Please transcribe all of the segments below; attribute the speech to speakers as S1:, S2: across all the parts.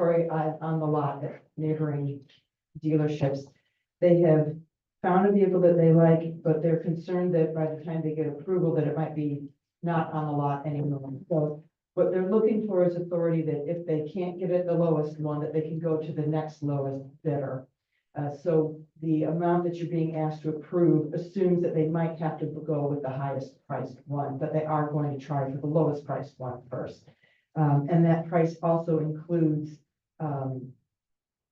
S1: right on, on the um, lot at neighboring dealerships. They have found a vehicle that they like, but they're concerned that by the time they get approval, that it might be not on the lot anymore. So what they're looking for is authority that if they can't get it the lowest one, that they can go to the next lowest bidder. Uh, so the amount that you're being asked to approve assumes that they might have to go with the highest priced one, but they are going to try for the lowest priced one first. Um, and that price also includes, um,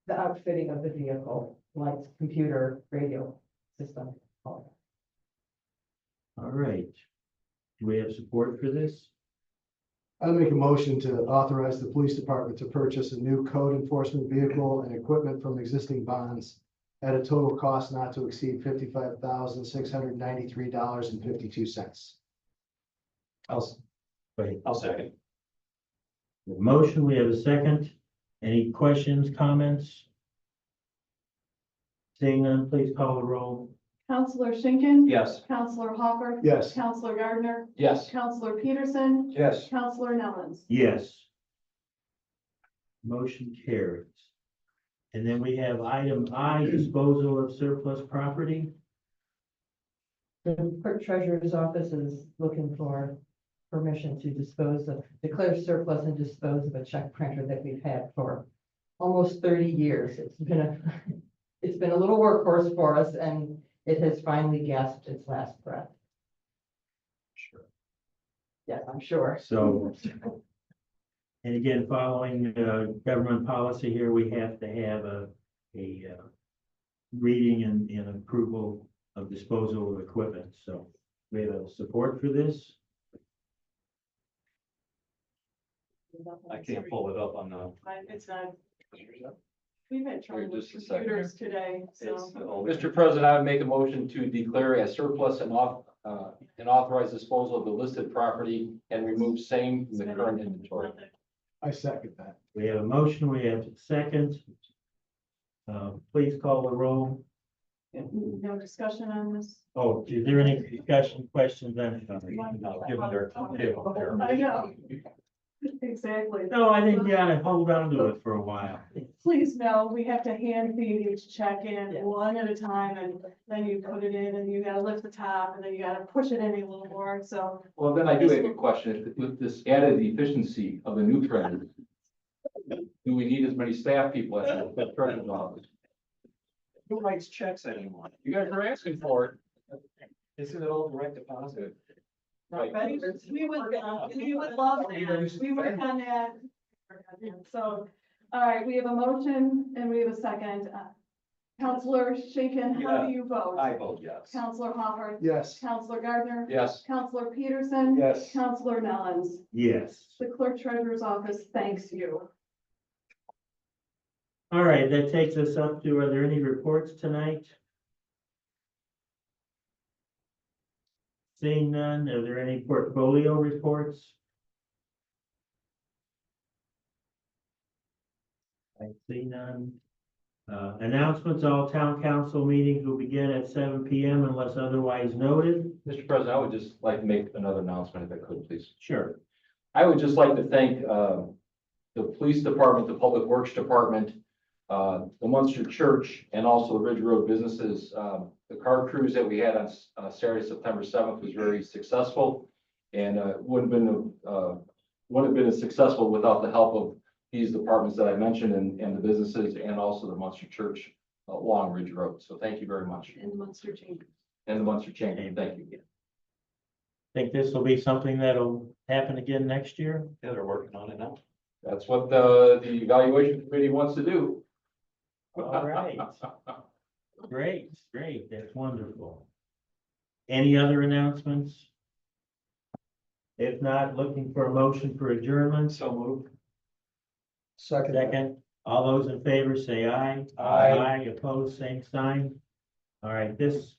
S1: the outfitting of the vehicle, lights, computer, radio system. all that.
S2: All right. Do we have support for this?
S3: I make a motion to authorize the police department to purchase a new code enforcement vehicle and equipment from existing bonds at a total cost not to exceed fifty-five thousand, six hundred ninety-three dollars and fifty-two cents.
S2: I'll. Wait,
S4: I'll second.
S2: the motion, we have a second. Any questions, comments? Seeing none, please call the roll.
S5: Counselor Schinkin.
S4: Yes.
S5: Counselor Hopper.
S3: Yes.
S5: Counselor Gardner.
S4: Yes.
S5: Counselor Peterson.
S4: Yes.
S5: Counselor Nellens.
S2: Yes. Motion carries. And then we have item I, disposal of surplus property.
S1: The clerk treasurer's office is looking for permission to dispose of, declare surplus and dispose of a check printer that we've had for almost thirty years. It's been a, it's been a little workhorse for us and it has finally gasped its last breath.
S2: Sure.
S1: Yes, I'm sure.
S2: So. And again, following uh government policy here, we have to have a, a uh. Reading and, and approval of disposal of equipment, so we have support for this.
S4: I can't pull it up on the.
S5: I- It's not, we've had trouble
S4: Wait,
S5: with
S4: just a second.
S5: computers today, so.
S4: Mr. President, I would make a motion to declare a surplus and off, uh, and authorize disposal of the listed property and remove same from the current inventory.
S3: I second that.
S2: We have a motion, we have a second. Uh, please call the roll.
S5: No discussion on this.
S2: Oh, is there any discussion, questions, anything?
S5: I know. Exactly.
S2: No, I think you ought to hold on to it for a while.
S5: Please know, we have to hand feed each check in
S1: Yes.
S5: one at a time and then you put it in and you gotta lift the top and then you gotta push it in a little more, so.
S4: Well, then I do have a question. With this added efficiency of the new treasurer, do we need as many staff people as the treasurer's office?
S6: Who writes checks anymore?
S4: You guys are asking for it.
S6: Isn't it all direct deposit?
S4: Right.
S5: We would, we would love that. We work on that. So, all right, we have a motion and we have a second. Uh, Counselor Schinkin, how do you vote?
S6: I vote yes.
S5: Counselor Hopper,
S3: Yes.
S5: Counselor Gardner,
S4: Yes.
S5: Counselor Peterson,
S6: Yes.
S5: Counselor Nellens.
S2: Yes.
S5: The clerk treasurer's office thanks you.
S2: All right, that takes us up to, are there any reports tonight? Seeing none, are there any portfolio reports? I see none. Uh, announcements, all town council meetings will begin at seven P M unless otherwise noted.
S4: Mr. President, I would just like to make another announcement if I could, please.
S2: Sure.
S4: I would just like to thank uh, the police department, the public works department, uh, the Munster Church, and also the Ridge Road businesses. Um, The car cruise that we had on S- uh, Saturday, September seventh was very successful. And uh, wouldn't have been, uh, wouldn't have been as successful without the help of these departments that I mentioned and, and the businesses and also the Munster Church uh, along Ridge Road. So thank you very much.
S5: in the Munster chamber.
S4: And the Munster Chamber, thank you.
S2: Think this will be something that'll happen again next year?
S6: Yeah, they're working on it now.
S4: That's what the, the evaluation committee wants to do.
S2: All right. Great, great, that's wonderful. Any other announcements? If not, looking for a motion for adjournments,
S6: So moved.
S2: second, all those in favor say aye.
S6: Aye.
S2: opposed, same sign. All right, this,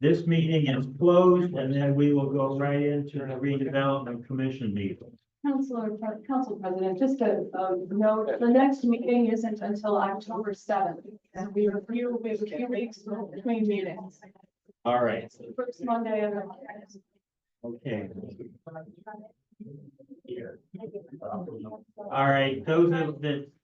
S2: this meeting is closed, and then we will go right into the redevelopment commission meeting.
S5: Counselor, Council President, just a, a note, the next meeting isn't until October seventh. And we are, we will be a few weeks between meetings.
S2: All right,
S5: First Monday of the.
S2: okay. All right, those that- that